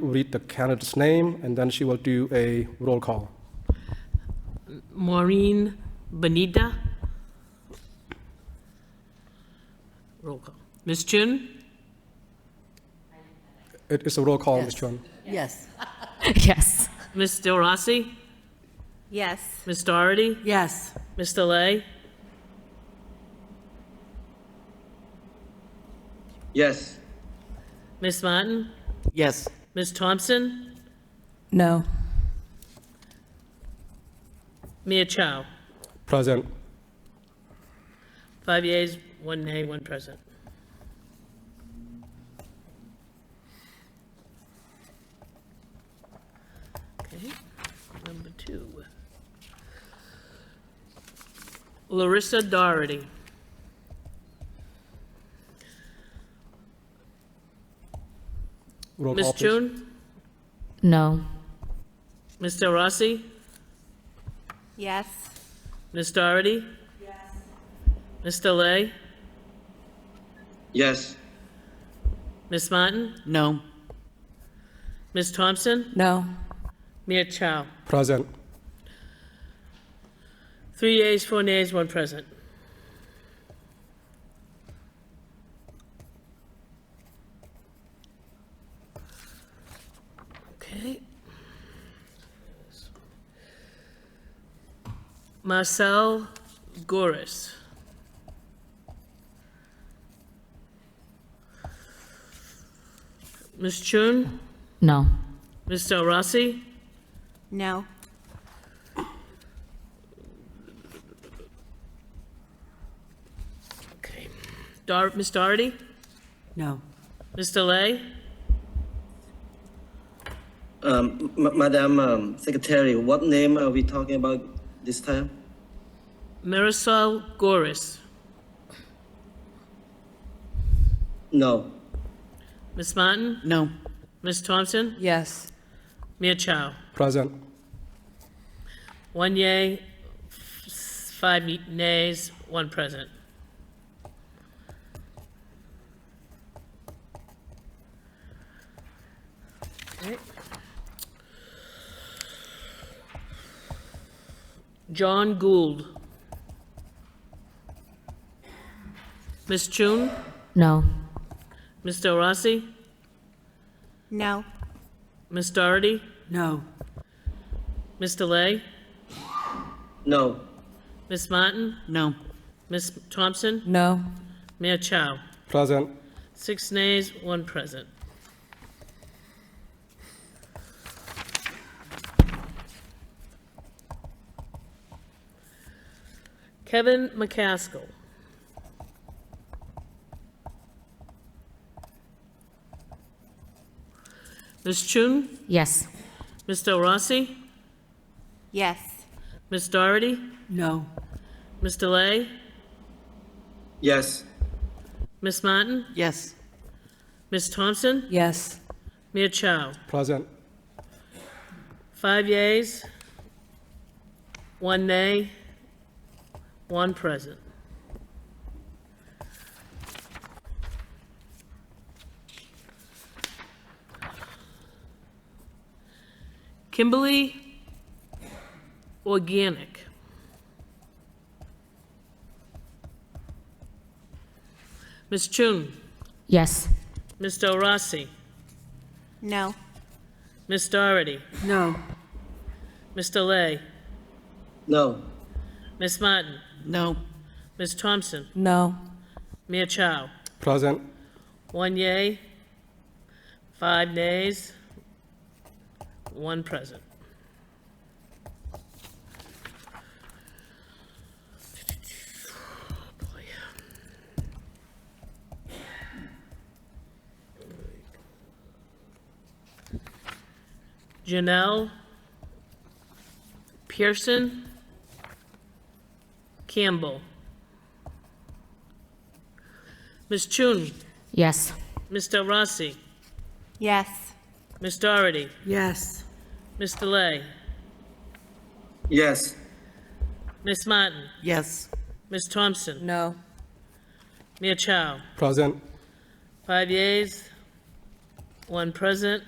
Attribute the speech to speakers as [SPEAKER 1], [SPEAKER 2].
[SPEAKER 1] read the candidate's name, and then she will do a roll call.
[SPEAKER 2] Maureen Benida. Roll call. Ms. Chun?
[SPEAKER 1] It is a roll call, Ms.
[SPEAKER 3] Yes.
[SPEAKER 1] Chun.
[SPEAKER 3] Yes.
[SPEAKER 4] Yes.
[SPEAKER 2] Ms. Del Rossi?
[SPEAKER 5] Yes.
[SPEAKER 2] Ms. Doherty?
[SPEAKER 3] Yes.
[SPEAKER 2] Ms. Delay?
[SPEAKER 6] Yes.
[SPEAKER 2] Ms. Martin?
[SPEAKER 3] Yes.
[SPEAKER 2] Ms. Thompson?
[SPEAKER 4] No.
[SPEAKER 2] Mia Chow?
[SPEAKER 1] Present.
[SPEAKER 2] Five yeas, one nay, one present. Okay, number two. Larissa Doherty.
[SPEAKER 1] Roll
[SPEAKER 2] Ms.
[SPEAKER 1] call, please.
[SPEAKER 2] Chun?
[SPEAKER 4] No.
[SPEAKER 2] Ms. Del Rossi?
[SPEAKER 5] Yes.
[SPEAKER 2] Ms. Doherty? Yes. Ms. Delay?
[SPEAKER 6] Yes.
[SPEAKER 2] Ms. Martin?
[SPEAKER 3] No.
[SPEAKER 2] Ms. Thompson?
[SPEAKER 4] No.
[SPEAKER 2] Mia Chow?
[SPEAKER 1] Present.
[SPEAKER 2] Three yeas, four nays, one present. Okay. Marcel Goris. Ms. Chun,
[SPEAKER 4] No.
[SPEAKER 2] Ms. Del Rossi,
[SPEAKER 5] No.
[SPEAKER 2] okay. Dar, Ms. Doherty,
[SPEAKER 3] No.
[SPEAKER 2] Ms. Delay,
[SPEAKER 6] Um, M- Madam um, Secretary, what name are we talking about this time?
[SPEAKER 2] Marisol Goris,
[SPEAKER 6] No.
[SPEAKER 2] Ms. Martin,
[SPEAKER 3] No.
[SPEAKER 2] Ms. Thompson?
[SPEAKER 3] Yes.
[SPEAKER 2] Mia Chow?
[SPEAKER 1] Present.
[SPEAKER 2] One yay, f- five nays, one present. Okay. John Gould. Ms. Chun?
[SPEAKER 4] No.
[SPEAKER 2] Ms. Del Rossi?
[SPEAKER 5] No.
[SPEAKER 2] Ms. Doherty?
[SPEAKER 3] No.
[SPEAKER 2] Ms. Delay?
[SPEAKER 6] No.
[SPEAKER 2] Ms. Martin?
[SPEAKER 3] No.
[SPEAKER 2] Ms. Thompson?
[SPEAKER 4] No.
[SPEAKER 2] Mia Chow?
[SPEAKER 1] Present.
[SPEAKER 2] Six nays, one present. Kevin McCaskill. Ms. Chun,
[SPEAKER 4] Yes.
[SPEAKER 2] Ms. Del Rossi,
[SPEAKER 5] Yes.
[SPEAKER 2] Ms. Doherty,
[SPEAKER 3] No.
[SPEAKER 2] Ms. Delay,
[SPEAKER 6] Yes.
[SPEAKER 2] Ms. Martin,
[SPEAKER 3] Yes.
[SPEAKER 2] Ms. Thompson,
[SPEAKER 3] Yes.
[SPEAKER 2] Mia Chow.
[SPEAKER 1] Present.
[SPEAKER 2] Five yeas, one nay, one present. Kimberly Organic. Ms. Chun,
[SPEAKER 4] Yes.
[SPEAKER 2] Ms. Del Rossi,
[SPEAKER 5] No.
[SPEAKER 2] Ms. Doherty,
[SPEAKER 3] No.
[SPEAKER 2] Ms. Delay,
[SPEAKER 6] No.
[SPEAKER 2] Ms. Martin,
[SPEAKER 3] No.
[SPEAKER 2] Ms. Thompson,
[SPEAKER 4] No.
[SPEAKER 2] Mia Chow.
[SPEAKER 1] Present.
[SPEAKER 2] One yay, five nays, one present. Oh, Boy. Janelle Pearson Campbell. Ms. Chun.
[SPEAKER 4] Yes.
[SPEAKER 2] Ms. Del Rossi,
[SPEAKER 5] Yes.
[SPEAKER 2] Ms. Doherty,
[SPEAKER 3] Yes.
[SPEAKER 2] Ms. Delay,
[SPEAKER 6] Yes.
[SPEAKER 2] Ms. Martin,
[SPEAKER 3] Yes.
[SPEAKER 2] Ms. Thompson,
[SPEAKER 3] No.
[SPEAKER 2] Mia Chow.
[SPEAKER 1] Present.
[SPEAKER 2] Five yeas, one present.